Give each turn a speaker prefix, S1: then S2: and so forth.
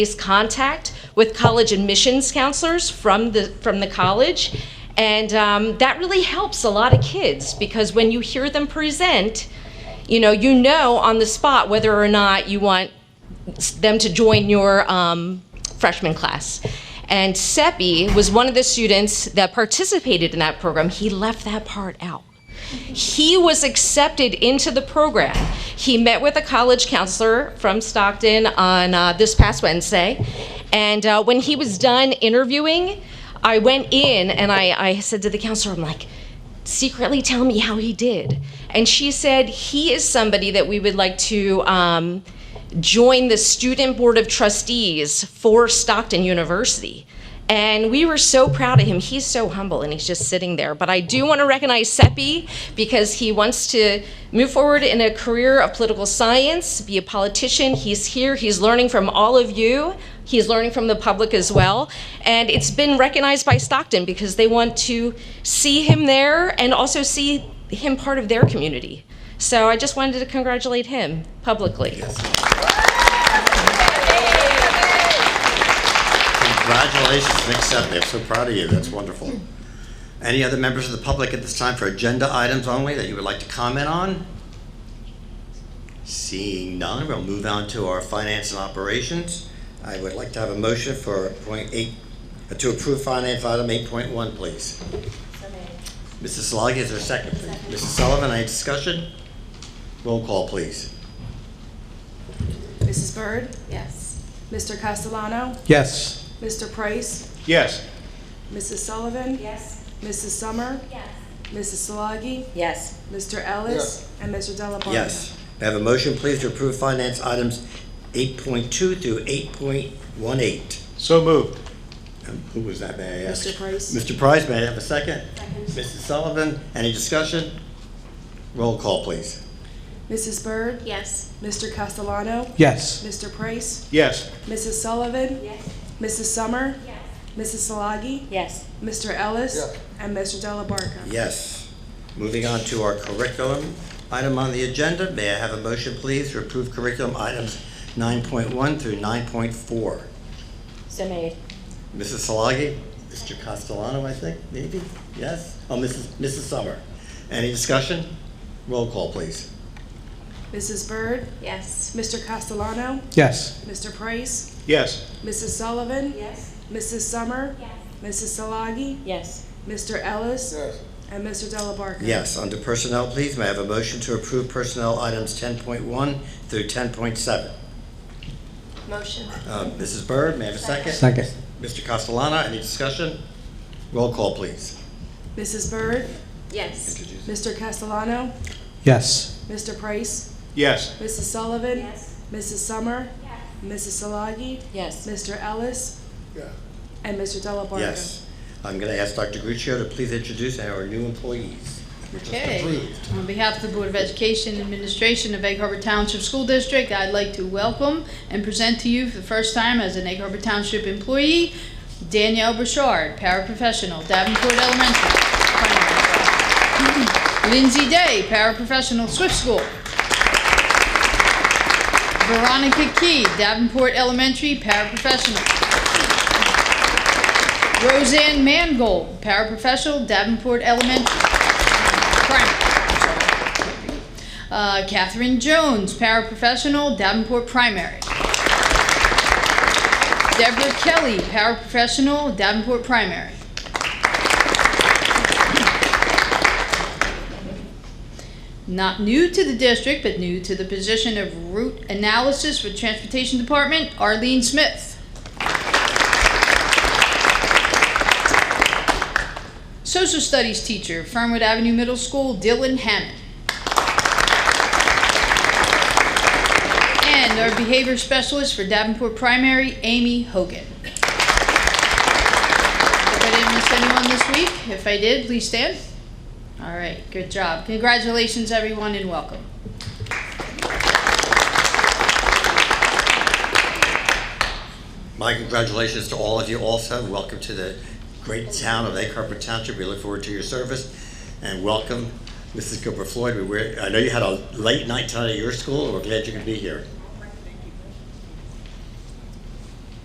S1: is contact with college admissions counselors from the, from the college. And um, that really helps a lot of kids because when you hear them present, you know, you know on the spot whether or not you want them to join your um, freshman class. And Seppi was one of the students that participated in that program. He left that part out. He was accepted into the program. He met with a college counselor from Stockton on uh, this past Wednesday. And uh, when he was done interviewing, I went in and I, I said to the counselor, I'm like, secretly tell me how he did. And she said, he is somebody that we would like to um, join the Student Board of Trustees for Stockton University. And we were so proud of him. He's so humble and he's just sitting there. But I do want to recognize Seppi because he wants to move forward in a career of political science, be a politician. He's here, he's learning from all of you, he's learning from the public as well. And it's been recognized by Stockton because they want to see him there and also see him part of their community. So I just wanted to congratulate him publicly.
S2: Congratulations, Nick Seppi. I'm so proud of you. That's wonderful. Any other members of the public at this time for agenda items only that you would like to comment on? Seeing none, we'll move on to our finance and operations. I would like to have a motion for point eight, uh, to approve finance item eight point one, please. Mrs. Solagi, is there a second, please? Mrs. Sullivan, any discussion? Roll call, please.
S3: Mrs. Byrd? Yes. Mr. Castellano?
S4: Yes.
S3: Mr. Price?
S4: Yes.
S3: Mrs. Sullivan?
S5: Yes.
S3: Mrs. Summer?
S5: Yes.
S3: Mrs. Solagi?
S5: Yes.
S3: Mr. Ellis? And Mr. Delabarka?
S2: Yes. May I have a motion, please, to approve finance items eight point two through eight point one eight?
S4: So moved.
S2: Um, Who was that, may I ask?
S3: Mr. Price?
S2: Mr. Price, may I have a second? Mrs. Sullivan, any discussion? Roll call, please.
S3: Mrs. Byrd?
S5: Yes.
S3: Mr. Castellano?
S4: Yes.
S3: Mr. Price?
S4: Yes.
S3: Mrs. Sullivan?
S5: Yes.
S3: Mrs. Summer?
S5: Yes.
S3: Mrs. Solagi?
S5: Yes.
S3: Mr. Ellis? And Mr. Delabarka?
S2: Yes. Moving on to our curriculum item on the agenda, may I have a motion, please, to approve curriculum items nine point one through nine point four?
S5: So made.
S2: Mrs. Solagi, Mr. Castellano, I think, maybe, yes? Oh, Mrs. Mrs. Summer, any discussion? Roll call, please.
S3: Mrs. Byrd?
S5: Yes.
S3: Mr. Castellano?
S4: Yes.
S3: Mr. Price?
S4: Yes.
S3: Mrs. Sullivan?
S5: Yes.
S3: Mrs. Summer?
S5: Yes.
S3: Mrs. Solagi?
S5: Yes.
S3: Mr. Ellis? And Mr. Delabarka?
S2: Yes, under personnel, please, may I have a motion to approve personnel items ten point one through ten point seven?
S5: Motion.
S2: Uh, Mrs. Byrd, may I have a second?
S4: Second.
S2: Mr. Castellano, any discussion? Roll call, please.
S3: Mrs. Byrd?
S5: Yes.
S3: Mr. Castellano?
S4: Yes.
S3: Mr. Price?
S4: Yes.
S3: Mrs. Sullivan?
S5: Yes.
S3: Mrs. Summer? Mrs. Solagi?
S5: Yes.
S3: Mr. Ellis? And Mr. Delabarka?
S2: Yes. I'm going to ask Dr. Guccio to please introduce our new employees. who just
S6: Okay,
S2: approved.
S6: on behalf of the Board of Education and Administration of Egg Harbor Township School District, I'd like to welcome and present to you for the first time as an Egg Harbor Township employee, Danielle Bouchard, paraprofessional, Davenport Elementary. Lindsay Day, paraprofessional, Swift School. Veronica Key, Davenport Elementary, paraprofessional. Roseanne Mangold, paraprofessional, Davenport Elementary. Primary. Uh, Catherine Jones, paraprofessional, Davenport Primary. Deborah Kelly, paraprofessional, Davenport Primary. Not new to the district, but new to the position of route analysis for Transportation Department, Arlene Smith. Social Studies teacher, Fernwood Avenue Middle School, Dylan Hammond. And our behavior specialist for Davenport Primary, Amy Hogan. If I didn't miss anyone this week, if I did, please stand. All right, good job. Congratulations, everyone, and welcome.
S2: My congratulations to all of you also. Welcome to the great town of Egg Harbor Township. We look forward to your service. And welcome, Mrs. Gilbert Floyd. We were, I know you had a late night tonight at your school. We're glad you could be here.